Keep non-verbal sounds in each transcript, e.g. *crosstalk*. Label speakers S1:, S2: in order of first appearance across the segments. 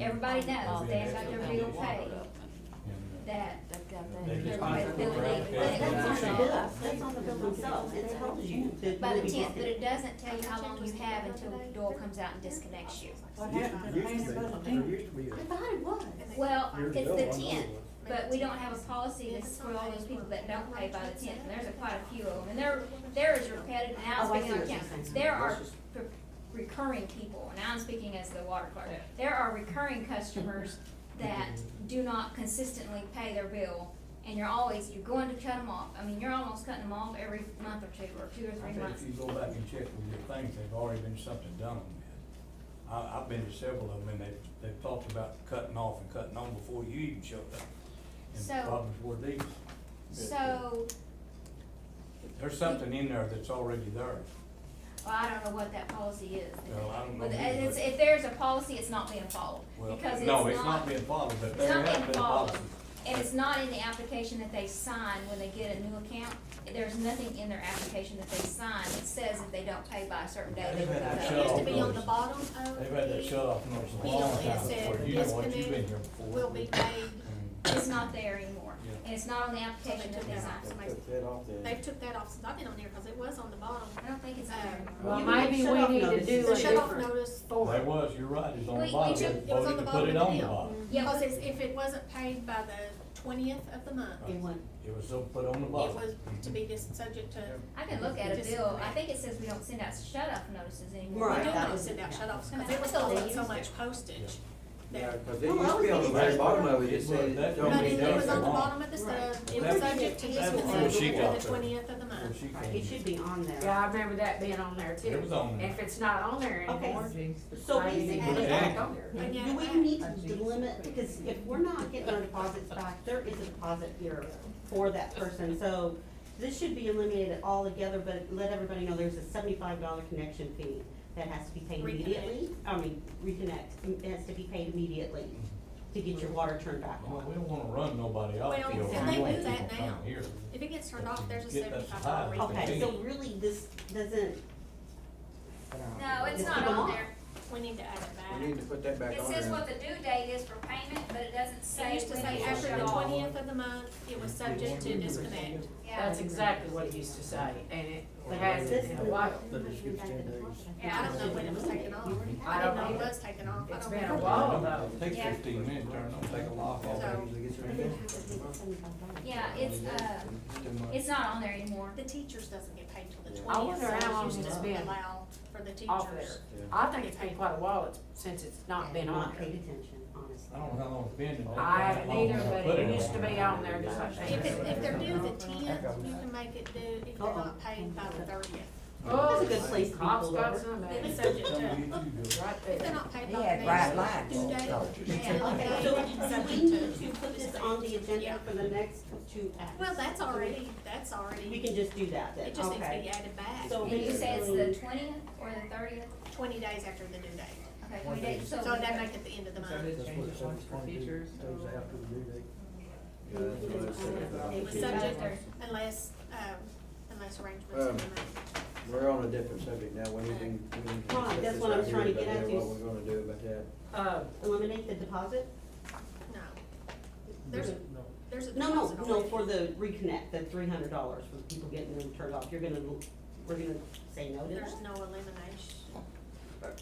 S1: everybody knows, that's like their real pay, that,
S2: They just-
S3: But that's on the
S1: Yeah.
S3: bill, that's on the bill themselves, it tells you that.
S1: by the
S3: we-
S1: tenth, but it doesn't tell you how long you have until Doyle comes out and disconnects you.
S4: What
S5: Used to
S4: happened?
S5: be, there used to be a-
S3: I thought it was.
S1: Well,
S5: years
S1: it's
S5: ago, I
S1: the
S5: know there
S1: tenth,
S5: was.
S1: but we don't have a policy that's for all those people that don't pay by the tenth, and there's a quite a few of them, and there, there is repetitive, and I'm
S3: Oh, I see
S1: speaking on
S3: what you're
S1: council,
S3: saying.
S1: there are
S5: Versus-
S1: pre- recurring people, and I'm speaking as the water clerk, there are recurring customers that do not consistently pay their bill, and you're always, you're going to cut them off, I mean, you're almost cutting them off every month or two, or two or
S4: I
S1: three
S4: bet
S1: months.
S4: if you go back and check with your things, they've already been something done on that. I, I've been to several of them, and they've, they've talked about cutting off and cutting on before you even showed up. And
S1: So-
S4: problems were these.
S1: So,
S4: There's something in there that's already there.
S1: Well, I don't know what that policy is.
S4: Well, I don't know
S1: But
S4: either,
S1: it's-
S4: but-
S1: if there's a policy, it's not being followed,
S4: Well,
S1: because it's not.
S4: no, it's not being followed, but
S1: it's
S4: there
S1: not
S4: has
S1: being
S4: been a
S1: followed.
S4: policy.
S1: And it's not in the application that they sign when they get a new account. There's nothing in their application that they sign that says if they don't pay by a certain date, they
S4: They've
S1: will
S4: had
S1: go.
S4: that
S6: It
S4: shut
S6: used
S4: off
S6: to be on the
S4: notice.
S6: bottom of.
S4: They've had that
S6: the
S4: shut off notice a
S6: bill.
S4: long
S6: It
S4: time
S6: said
S4: before, you know
S6: this
S4: what, you've been
S6: canoe
S4: here before.
S6: Will be paid,
S4: Mm.
S1: It's not there anymore,
S4: Yeah.
S1: and it's not on the application that they
S6: Yeah.
S1: sign.
S5: They took that off the-
S6: they've took that off since I've been on there, cause it was on the bottom.
S1: I don't think it's on there anymore.
S2: Well,
S3: You
S2: maybe
S3: shut
S2: we
S3: off
S2: need to
S3: notices.
S2: do
S6: The
S2: a
S6: shut off
S2: different-
S6: notice.
S4: There was, you're right, it's on
S1: We-
S4: the
S1: we
S4: bottom,
S1: took-
S4: they
S6: It was on the
S4: voted to put
S6: bottom of
S4: it
S6: the
S4: on the
S6: bill.
S4: bottom.
S1: Yeah,
S6: Cause it's, if it wasn't paid by the twentieth of the month, it
S3: It went,
S4: It was so put on the bottom.
S6: was to be just subject to.
S1: I can look at a
S6: Just-
S1: bill. I think it says we don't send out shut-off notices anymore. We
S3: Right,
S6: We do
S1: don't.
S3: that
S6: not
S3: was-
S6: send out shut offs, cause
S1: Yeah.
S6: it was costing
S3: Yeah.
S6: so much postage.
S5: Yeah,
S6: That,
S5: 'cause it
S3: Well,
S5: used to be on the
S3: I
S5: very
S3: was
S5: bottom of it,
S4: thinking
S5: it said,
S4: that-
S5: don't
S6: but
S5: be
S6: it it was on the
S4: Right.
S6: bottom of the stuff, it was
S5: That's-
S6: subject to
S3: that's
S6: disconnect
S3: before she
S4: got
S6: for the
S4: there.
S6: twentieth of the month.
S4: Before she
S3: right, it
S4: came.
S3: should be on there.
S2: Yeah, I remember that being on there too.
S4: It was on there.
S2: If it's not on there
S3: Okay,
S2: anymore.
S3: so
S2: maybe they
S3: basically-
S2: put it back on there.
S6: And yet-
S3: Do we need to limit, because if we're not getting our deposits back, there is a deposit here for that person, so this should be eliminated altogether, but let everybody know there's a seventy-five dollar connection fee that has to be paid
S6: Reconnect.
S3: immediately, I mean, reconnect, it has to be paid immediately to get your water turned back
S4: Well,
S3: on.
S4: we don't wanna run nobody off.
S6: Well,
S4: the old
S6: and they
S4: way
S6: do that
S4: people come
S6: now.
S4: here.
S6: If it gets turned off, there's a
S4: Get that
S6: seventy-five dollar
S4: supplied.
S3: Okay,
S6: refund.
S3: so really, this doesn't,
S1: No, it's
S3: Just
S1: not
S3: keep 'em
S1: on
S3: off.
S1: there.
S6: We need to add it
S5: We need to
S6: back.
S5: put that back
S1: It
S5: on
S1: says
S5: there.
S1: what the due date is for payment, but it doesn't
S6: It
S1: say
S6: used to
S1: when
S6: say
S1: it
S6: after
S1: shut
S6: the
S1: off.
S6: twentieth of the month, it was subject to disconnect.
S2: That's exactly what it used to say, and it
S4: Or
S2: has
S3: this.
S2: in a while.
S6: I don't know when it was taken
S2: I
S6: off. I didn't
S2: don't
S6: know it
S2: know.
S6: was taken off. I
S2: It's
S6: don't
S2: been a
S6: know.
S2: while though.
S4: Take
S1: Yeah.
S4: fifteen minutes, turn it on, take a lock off.
S6: So-
S1: Yeah, it's, uh,
S4: Too much.
S1: it's not on there anymore.
S6: The teachers doesn't get paid till the
S2: I
S6: twentieth,
S2: wonder
S6: so
S2: how long
S6: it's
S2: it's
S6: just
S2: been
S6: allowed for the
S2: off there.
S6: teachers.
S2: I think it's been quite a while it's- since it's not been on
S3: Not paid
S2: there.
S3: attention, honestly.
S4: I don't know how long it's been. but
S2: I
S4: that's how
S2: haven't
S4: long
S2: either,
S4: I
S2: but
S4: put
S2: it
S4: on
S2: used to
S4: there.
S2: be on there just like
S6: If it, if they're
S2: that.
S6: due the tenth, you can make it due if they're not paid by the thirtieth.
S2: Oh,
S3: That's a good place to be
S2: Cops
S3: pulled
S2: got
S3: over.
S2: some,
S6: It
S2: man.
S6: was subject
S4: Tell me
S6: to,
S4: what you do.
S2: right
S6: if they're
S2: there.
S6: not paid
S7: He
S6: by
S7: had
S6: the
S7: bright
S6: next
S7: lights
S6: due
S7: on
S6: date,
S7: charges.
S6: then
S3: Okay,
S6: they
S3: so
S6: are
S3: we
S6: subject
S3: need
S6: to.
S3: to put this on the agenda
S6: Yeah.
S3: for the next two acts.
S6: Well, that's already, that's
S3: We
S6: already,
S3: can just do that then,
S6: it just needs to be
S3: okay?
S6: added back
S3: So
S1: And you say it's the twentieth or the thirtieth?
S6: twenty days after the due date.
S1: Okay, we did, so.
S6: So they make it the end of the month.
S5: That's what it said, it's gonna be- goes out to the due date.
S7: Yeah, that's what it said about the
S6: It was
S7: kids.
S6: subject unless, um, unless arrangements are
S5: Um,
S6: made.
S5: We're on a different subject now, we need to. we need to
S3: Right,
S5: discuss
S3: that's
S5: this
S3: what I'm
S5: right here
S3: trying to
S5: about
S3: get
S5: that,
S3: at
S5: What
S3: is-
S5: we're gonna do about that.
S2: Uh,
S3: Eliminate the deposit?
S6: No. There's a, there's a.
S3: No, no,
S6: deposit
S3: no,
S6: already.
S3: for the reconnect, the three hundred dollars for people getting them turned off, you're gonna, we're gonna say no to
S6: There's
S3: that?
S6: no elimination.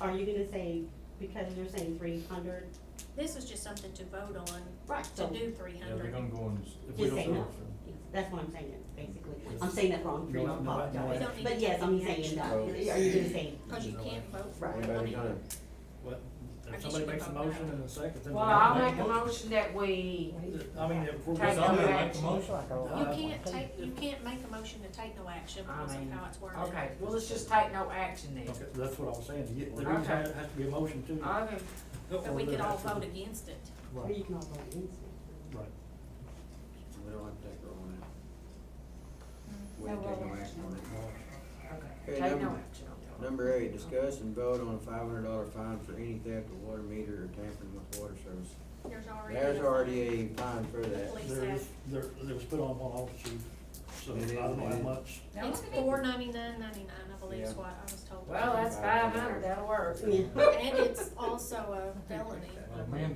S3: Are you gonna say, because you're saying three hundred?
S6: This is just something to vote on,
S3: Right. So,
S6: to do three
S4: Yeah, they're
S6: hundred.
S4: gonna go and. s- if we
S3: just
S4: don't
S3: say
S4: do
S3: no,
S4: it, so-
S3: that's what I'm saying, basically, I'm saying that wrong,
S5: No,
S3: Free
S5: no,
S3: don't
S5: no, no.
S3: apologize,
S6: We don't
S3: but
S6: need
S3: yes,
S6: to
S3: I'm
S6: take
S3: saying
S6: action.
S3: no,
S5: Well-
S3: are you gonna say,
S6: Cause you can't vote for
S3: Right.
S6: it.
S5: Anybody got it?
S8: What,
S6: I
S8: if
S6: guess
S8: somebody
S6: you
S8: makes a
S6: can vote
S8: motion
S6: no.
S8: and a second. then we
S2: well,
S8: have
S2: I'll
S8: to
S2: make a motion that we,
S8: I mean, if we're.
S2: Take no
S8: gonna-
S4: Somebody make a
S2: action.
S4: motion.
S6: You can't take, you can't make a motion to take no action
S2: Uh, I
S6: because of
S2: mean,
S6: how it's worded.
S2: okay, well, let's just take no action then.
S8: Okay, that's what I was saying, to get, there
S2: Okay.
S8: is, has to be a motion too. Oh,
S2: Okay,
S6: Uh, But we could all vote against it.
S3: or
S8: Right,
S3: you can all vote against it?
S8: right.
S5: We don't have to take her on it. We
S1: No
S5: ain't taking
S1: roll
S5: no action on it.
S2: okay,
S5: Okay,
S2: take no action
S5: number-
S2: on that.
S5: Number eight, discuss and vote on a five hundred dollar fine for any theft of water meter or tampering with water service.
S6: There's already.
S5: There's already a fine for
S6: The
S5: that.
S6: police
S8: There
S6: have,
S8: is, there, there was put on one officer, so I
S5: It is,
S8: don't know how
S5: it is.
S8: much.
S1: That
S6: it's
S1: would be-
S6: four ninety-nine ninety-nine, I believe is
S5: Yeah.
S6: what I was told.
S2: Well, that's five hundred, that'll work.
S3: Yeah.
S2: *laughs*
S6: And it's also a felony.
S4: Well, man,